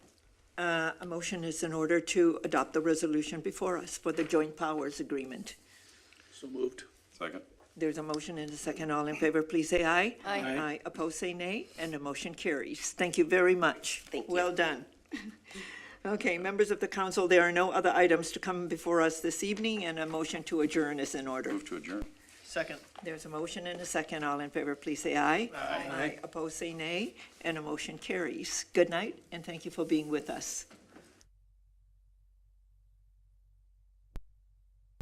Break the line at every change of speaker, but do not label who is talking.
uh, a motion is in order to adopt the resolution before us for the joint powers agreement.
So moved.
Second.
There's a motion and a second. All in favor, please say aye.
Aye.
Aye.
Aye. Opposed, say nay, and the motion carries. Thank you very much.
Thank you.
Well done. Okay, members of the council, there are no other items to come before us this evening, and a motion to adjourn is in order.
Move to adjourn.
Second.
There's a motion and a second. All in favor, please say aye. Aye. Opposed, say nay, and a motion carries. Good night, and thank you for being with us.